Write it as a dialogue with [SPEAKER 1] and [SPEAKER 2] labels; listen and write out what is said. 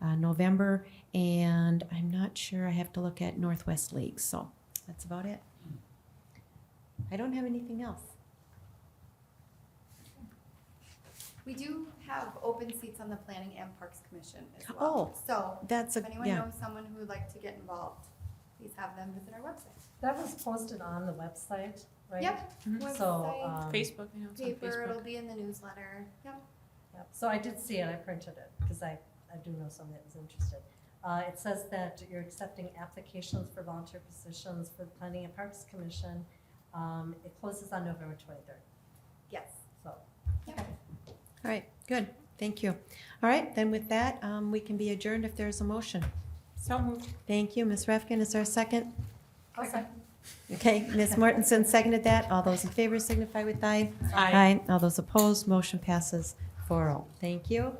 [SPEAKER 1] uh, November, and I'm not sure, I have to look at Northwest League, so that's about it. I don't have anything else.
[SPEAKER 2] We do have open seats on the Planning and Parks Commission as
[SPEAKER 1] Oh.
[SPEAKER 2] well. So
[SPEAKER 1] That's a,
[SPEAKER 2] if anyone
[SPEAKER 1] yeah,
[SPEAKER 2] knows someone who would like to get involved, please have them visit our website.
[SPEAKER 3] That was posted on the website, right?
[SPEAKER 2] Yep,
[SPEAKER 1] Mhm.
[SPEAKER 3] So,
[SPEAKER 2] website,
[SPEAKER 3] um,
[SPEAKER 4] Facebook, you know, it's on
[SPEAKER 2] paper, it'll
[SPEAKER 4] Facebook.
[SPEAKER 2] be in the newsletter. Yep,
[SPEAKER 3] yep. so I did see it, I printed it, because I, I do know someone that was interested. Uh, it says that you're accepting applications for volunteer positions for the Planning and Parks Commission. Um, it closes on November twenty-third,
[SPEAKER 2] yes.
[SPEAKER 3] so.
[SPEAKER 2] Yep.
[SPEAKER 1] all right, good, thank you. All right, then with that, um, we can be adjourned if there's a motion.
[SPEAKER 4] So moved.
[SPEAKER 1] Thank you, Ms. Refkin, is there a second?
[SPEAKER 3] Okay.
[SPEAKER 1] Okay, Ms. Mortensen seconded that, all those in favor signify with aye.
[SPEAKER 4] Aye.
[SPEAKER 1] All those opposed, motion passes 4-0. oh. Thank you,